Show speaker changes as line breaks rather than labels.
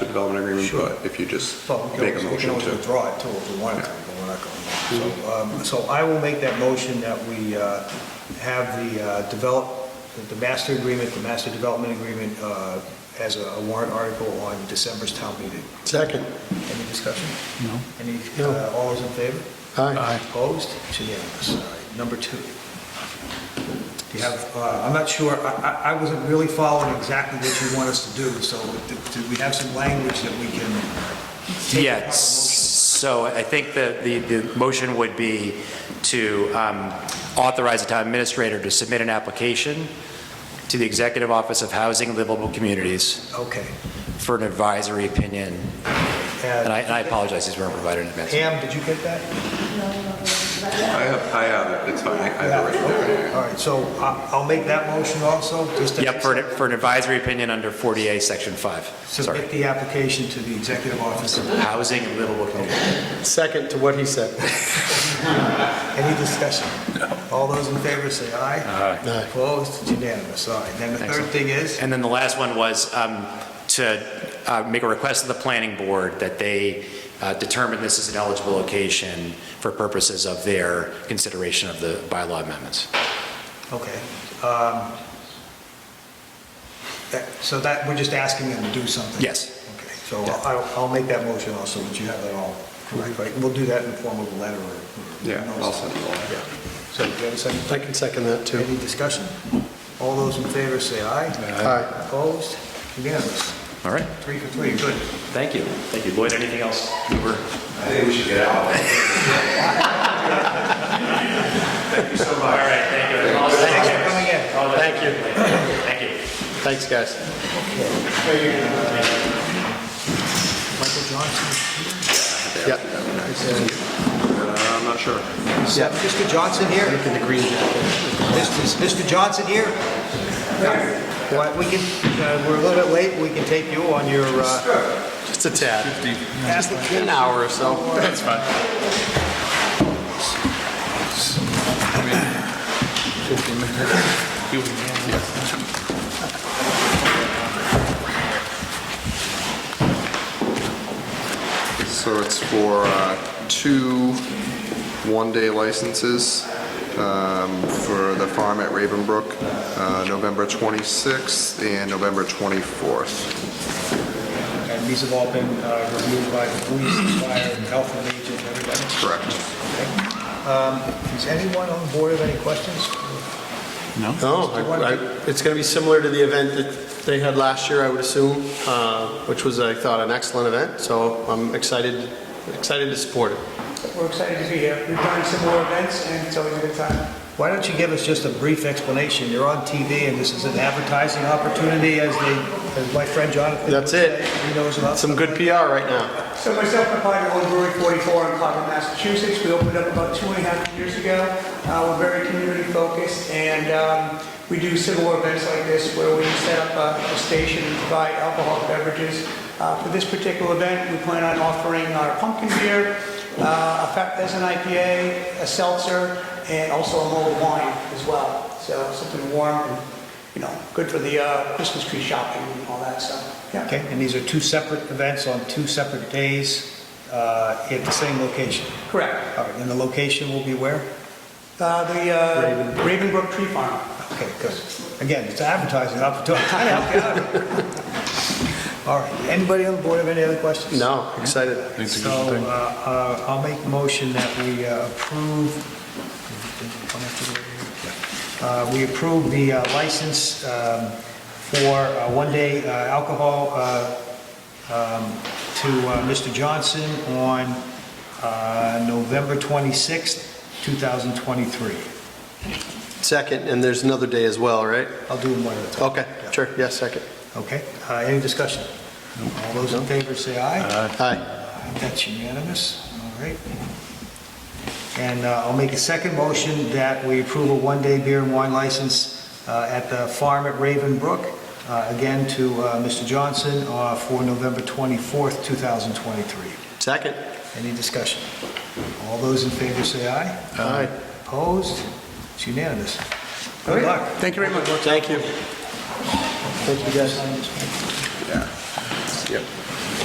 development agreement,
Sure.
but if you just
Well, we can
make a
always- we can
motion
always
to. Mm-hmm.
withdraw it too if we wanted to, but we're not going to. So, um, So I will make that motion that we uh, have the uh, develop, the master agreement, the master development agreement uh, as a warrant article on December's town meeting.
Second.
Any discussion?
No.
Any,
No.
uh, all those in favor?
Aye.
Opposed? It's unanimous. All right, number two. Do you have, uh, I'm not sure, I- I I wasn't really following exactly what you want us to do, so do- do we have some language that we can take apart the
Yes,
motion?
so I think the, the, the motion would be to um, authorize the town administrator to submit an application to the Executive Office of Housing and Livable Communities
Okay.
for an advisory opinion. And I, and I apologize, these weren't provided in advance.
Pam, did you get that?
I have, I have it, it's fine, I I have it right there.
All right, so I- I'll make that motion also, just to...
Yep, for, an- for an advisory opinion under 40A, Section 5. Sorry.
Submit the application to the executive office.
Housing and livable communities.
Second to what he said.
Any discussion? All those in favor say aye.
Aye.
Opposed? It's unanimous, all right. Then the third
Excellent.
thing is?
And then the last one was um, to uh, make a request to the planning board that they uh, determine this is an eligible location for purposes of their consideration of the bylaw amendments.
Okay. um, that- So that, we're just asking them to do something?
Yes.
Okay, so I'll, I'll make that motion also, that you have that all correct, right? We'll do that in the form of a letter or...
Yeah, I'll send it all.
Yeah. So do you have a second?
I can second that, too.
Any discussion? All those in favor say aye.
Aye.
Opposed? Unanimous.
All right,
Three for three, good.
thank you. Thank you. Lloyd, anything else? we were-
I think we should get out. Thank you so much.
All right, thank you. Thanks
for coming in.
Thank you. Thank you.
Thanks, guys.
Michael Johnson,
Yeah.
Uh, I'm not sure.
is that Mr. Johnson here? Mr. Mr. Johnson here? Well, we can, uh, we're a little bit late, we can take you on your, uh,
Just a tad. Just an hour or so. That's fine.
So it's for uh, two one-day licenses um, for the farm at Ravenbrook, uh, November 26th and November 24th.
and these have all been uh, reviewed by the police, fire, and health and agent, everybody.
Correct.
Is anyone on board of any questions?
No, Oh, I- I- it's going to be similar to the event that they had last year, I would assume, uh, which was, I thought, an excellent event, so I'm excited, excited to support it.
We're excited to be here. We've done some more events, and it's always a good time.
Why don't you give us just a brief explanation? You're on TV, and this is an advertising opportunity, as the, as my friend Jonathan would
That's it.
say. He knows about.
Some good PR right now.
So myself and my partner own Brewery 44 in Clover, Massachusetts. We opened up about two and a half years ago. Uh, We're very community focused and um, we do similar events like this where we set up a- a station and provide alcoholic beverages. Uh, For this particular event, we plan on offering our pumpkin beer, uh, a fat pheasant IPA, a seltzer, and also a mulled wine as well. So something warm and, you know, good for the uh, Christmas tree shopping and all that stuff. Yeah.
Okay, and these are two separate events on two separate days uh, at the same location.
Correct.
All right, and the location will be where?
Uh, The uh, Ravenbrook Tree Farm.
Okay, good. Again, it's advertising opportunity. Trying to help you out. All right, anybody on the board have any other questions?
No, excited.
So uh, uh, I'll make motion that we uh, approve, Uh, we approve the uh, license um, for uh, one-day uh, alcohol uh, um, to uh, Mr. Johnson on uh, November 26th, 2023.
Second, and there's another day as well, right?
I'll do them one at a time.
Okay, sure, yeah, second.
Okay, Uh, any discussion? All those in favor say aye.
Uh, Aye.
That's unanimous, all right. And uh, I'll make a second motion that we approve a one-day beer and wine license uh, at the farm at Raven Brook, uh, again to uh, Mr. Johnson uh, for November 24th, 2023.
Second.
Any discussion? All those in favor say aye.
Aye.
Opposed? It's unanimous. Good luck.
Thank you very much. Thank you. Thank you, guys.
Yeah. Yep.